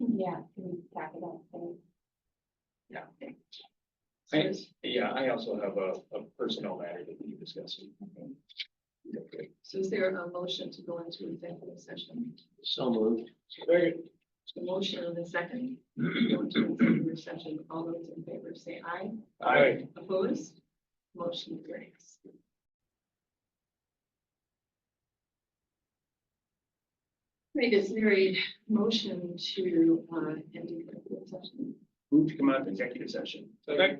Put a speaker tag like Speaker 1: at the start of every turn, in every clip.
Speaker 1: Yeah, can we tack it up? please?
Speaker 2: Yeah.
Speaker 1: So
Speaker 2: Thanks.
Speaker 1: it's-
Speaker 2: Yeah, I also have a, a personnel matter that we discussed. Okay.
Speaker 1: So is there a motion to go into executive session?
Speaker 2: So moved. Very
Speaker 1: The motion and the second, go into executive session, all those in favor say aye.
Speaker 2: Aye.
Speaker 1: Opposed? Motion carries. Right, is there a motion to, uh, end executive session?
Speaker 2: Move to come out of executive session. Okay.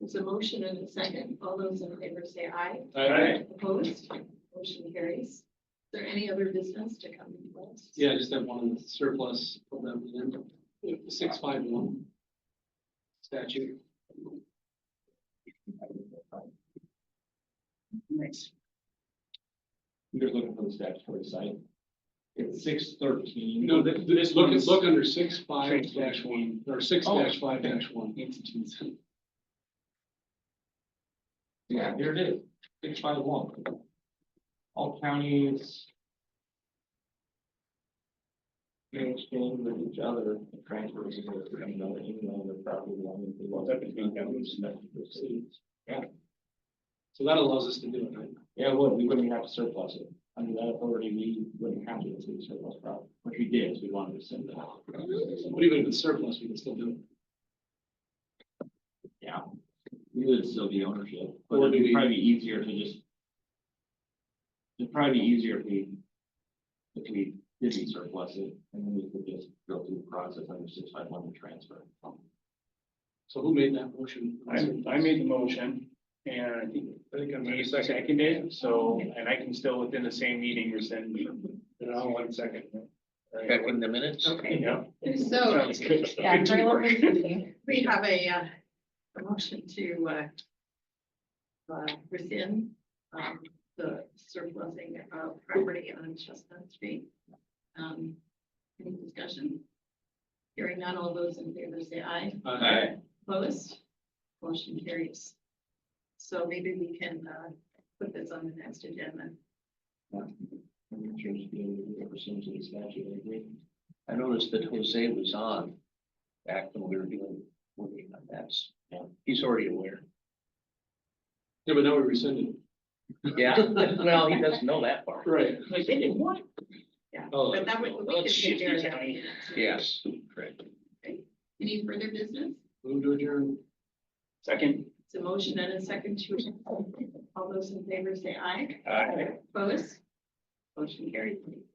Speaker 1: It's a motion and a second, all those in favor say aye. Opposed? Motion carries. Is there any other business to come before us?
Speaker 3: Yeah, I just have one surplus from them in six five one. Statute.
Speaker 2: Nice.
Speaker 4: You're looking for the statutory site. It's six thirteen.
Speaker 3: No, th- th- look, look under six five dash one, or six
Speaker 2: Oh.
Speaker 3: dash five dash one.
Speaker 4: Yeah, here it is, six five one. All counties. May exchange with each other, transfers, you know, even though, even though they're probably belonging to one.
Speaker 2: That between counties?
Speaker 3: So that allows us to do it, right?
Speaker 4: Yeah, it would, we wouldn't have to surplus it, under that authority, we wouldn't have to include surplus property, which we did, so we wanted to send that.
Speaker 3: But even if it's surplus, we can still do it.
Speaker 4: Yeah. We would still be ownership, but
Speaker 3: Or
Speaker 4: it'd
Speaker 3: do we-
Speaker 4: be probably easier to just. It'd probably be easier if we. If we didn't surplus it, and then we could just go through the process under six five one to transfer.
Speaker 3: So who made that motion?
Speaker 2: I, I made the motion and I think, I think I'm gonna second it, so, and I can still within the same meeting rescind. Now, one second.
Speaker 5: Back in the minutes?
Speaker 1: Okay,
Speaker 2: Yeah.
Speaker 1: so
Speaker 2: Sounds good.
Speaker 6: Yeah,
Speaker 2: Good
Speaker 6: very
Speaker 2: teamwork.
Speaker 6: well presented.
Speaker 1: we have a, uh, a motion to, uh, uh, rescind, um, the surplusing of property on Chestnut Street. Um, any discussion? Hearing none, all those in favor say aye.
Speaker 3: Aye.
Speaker 1: Opposed? Motion carries. So maybe we can, uh, put this on the next agenda.
Speaker 4: I'm not sure if you know, we ever seen to the statute, I agree.
Speaker 5: I noticed that Jose was on back when we were doing, working on that.
Speaker 4: Yeah.
Speaker 5: He's already aware.
Speaker 3: Yeah, but now we rescinded.
Speaker 5: Yeah, well, he doesn't know that part.
Speaker 3: Right.
Speaker 1: Like, they didn't want. Yeah,
Speaker 3: Oh,
Speaker 1: but that would, we could
Speaker 5: let's
Speaker 1: take
Speaker 5: shift
Speaker 1: care of
Speaker 5: it
Speaker 1: that.
Speaker 5: down.
Speaker 1: in the next meeting.
Speaker 5: Yes, correct.
Speaker 1: Any further business?
Speaker 3: Move to adjourn.
Speaker 2: Second.
Speaker 1: It's a motion and a second to, all those in favor say aye.
Speaker 2: Aye.
Speaker 1: Opposed? Motion carried.